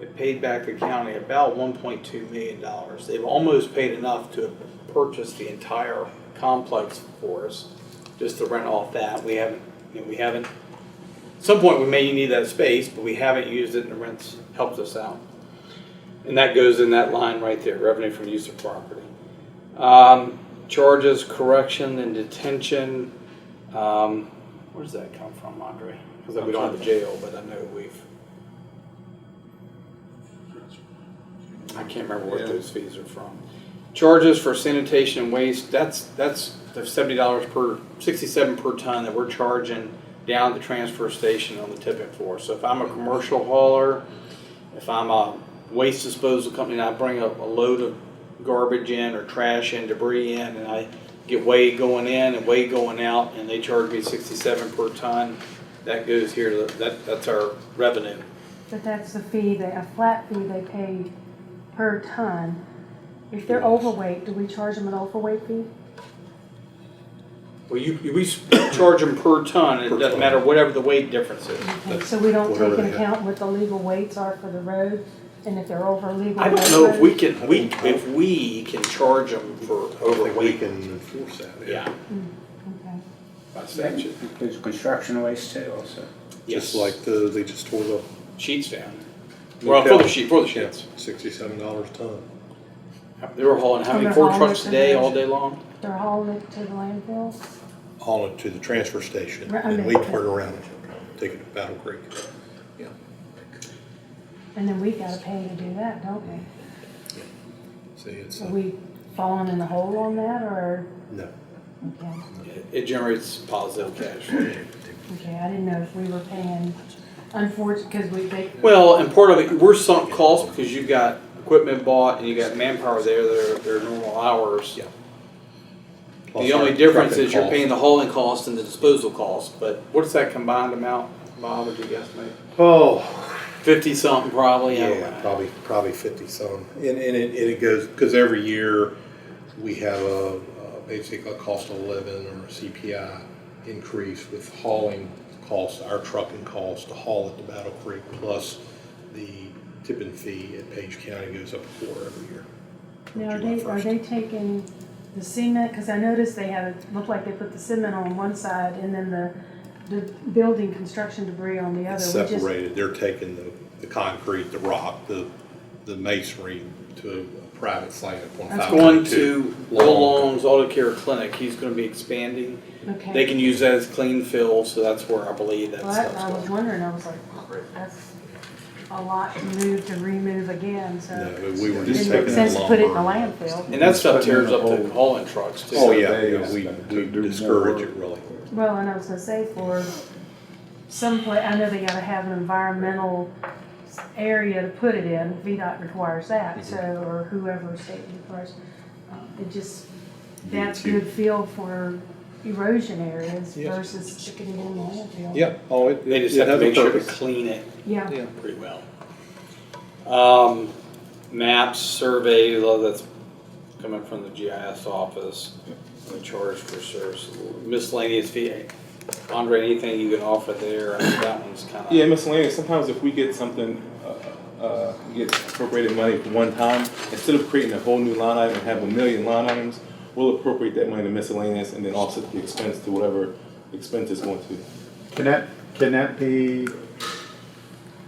it paid back the county about one point two million dollars. They've almost paid enough to purchase the entire complex for us, just to rent off that. We haven't, you know, we haven't, at some point, we may need that space, but we haven't used it and the rent's helped us out. And that goes in that line right there, revenue from use of property. Um, charges, correction and detention, um, where does that come from, Andre? Cause we don't have a jail, but I know we've. I can't remember what Yeah. those fees are from. Charges for sanitation and waste, that's, that's the seventy dollars per, sixty-seven per ton that we're charging down at the transfer station on the tipping floor. So if I'm a commercial hauler, if I'm a waste disposal company and I bring up a load of garbage in or trash and debris in and I get weighed going in and weighed going out and they charge me sixty-seven per ton, that goes here, to the- that, that's our revenue. But that's the fee, they, a flat fee they pay per ton. If they're overweight, do we charge them an overweight fee? Well, you, you- we s- charge them per ton, and it Per doesn't ton. matter whatever the weight difference is. Okay, so we don't Whatever take they into have. account what the legal weights are for the road, and if they're over legal. I don't weight know if we road? can, we, if we can charge them for I don't think we overweight. can enforce that. Yeah, Okay. by statute, Includes construction waste too also. yes. Just like the, they just tore the Sheets down. Well, for the sheet, for the sheets. sixty-seven dollars a ton. They were hauling how many, From the four haul trucks a to day, the- all day long? They're hauling it to the landfill? haul it to the transfer station, Right, I and mean- we turn around and take it to Battle Creek. And then we gotta pay to do that, don't we? See, it's, Are uh, we falling in the hole on that, or, no. okay, It- It generates positive cash flow. okay, I didn't know if we were paying, unfortunate, because we, they, Well, and part of it, we're sunk cost because you've got equipment bought and you got manpower there, their, their normal hours. Yeah. The only difference is you're paying the hauling cost and the disposal cost, but what's that combined amount, Bob, would you guesstimate? Oh, Fifty something probably, I don't yeah, know. probably, probably fifty some. And, and it, and it goes, because every year, we have a, uh, basically a cost of living or a CPI increase with hauling costs, our trucking costs to haul it to Battle Creek, plus the tipping fee at Page County goes up a quarter every year. from Now, are July they, are 1st. they taking the cement, because I noticed they had, it looked like they put the cement on one side and then the, the building construction debris on the other. It's We just- separated, they're taking the, the concrete, the rock, the, the masonry to a private site at one It's five going one to two. Will Long's Auto Care Clinic, he's gonna be expanding. They Okay. can use that as clean fill, so that's where I believe that Well, I- stuff's I was going. wondering, I was like, that's a lot to move to remove again, No, so. we- we were It just taking makes the sense to put it in the lumber. landfill. And that stuff Putting in tears a up the hole. hauling trucks too. Oh, yeah, They yeah, asked we, them to we do more discourage work. it really. Well, and I was gonna say for some pla I know they gotta have an environmental s- area to put it in, VDOT requires that, so, or whoever state requires. um, It just, that's too. good feel for erosion areas Yes. versus sticking it in the landfill. Yeah, oh, it, They it just have to has a make sure to purpose. clean it Yeah, Yeah. pretty well. Um, maps, surveys, all that's coming from the GIS office, the charge for service, miscellaneous fee. Andre, anything you can offer there, I think that one's kinda. Yeah, miscellaneous. Sometimes if we get something, uh, uh, get appropriated money for one time, instead of creating a whole new line item and have a million line items, we'll appropriate that money to miscellaneous and then offset the expense to whatever expense is going to. Can that, can that be,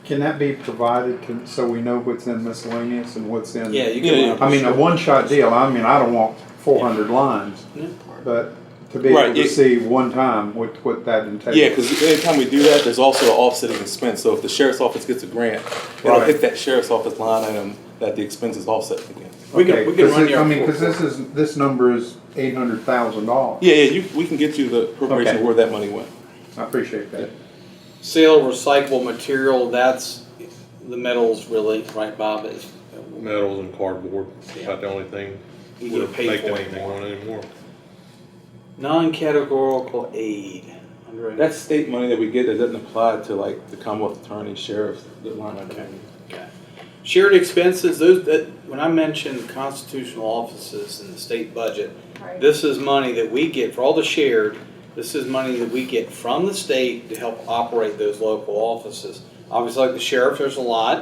can that be provided to, so we know what's in miscellaneous and what's in? Yeah, you Yeah, can. I mean, a one-shot deal, I mean, I don't want four hundred lines, Yeah. but to be able Right, to yeah. see one time what, what that entails. Yeah, because anytime we do that, there's also an offsetting expense. So if the sheriff's office gets a grant, it'll Right. hit that sheriff's office line item that the expense is offset against. We can, Okay, we can 'cause run it- your. I mean, cause this is, this number is eight hundred thousand dollars, Yeah, yeah, you, we can get you the appropriation Okay. where that money went. I appreciate that. Sale recyclable material, that's the metals really, right, Bob? It's- Metals and cardboard, about the only thing You we're get paid making for anything anymore. on anymore. Non-categorical aid. Andre? That's state money that we get that doesn't apply to like the Commonwealth Attorney, Sheriff, the line Okay. item. Okay. Shared expenses, those, that, when I mentioned constitutional offices in the state budget, right. This is money that we get for all the shared, this is money that we get from the state to help operate those local offices. Obviously, like the sheriff, there's a lot,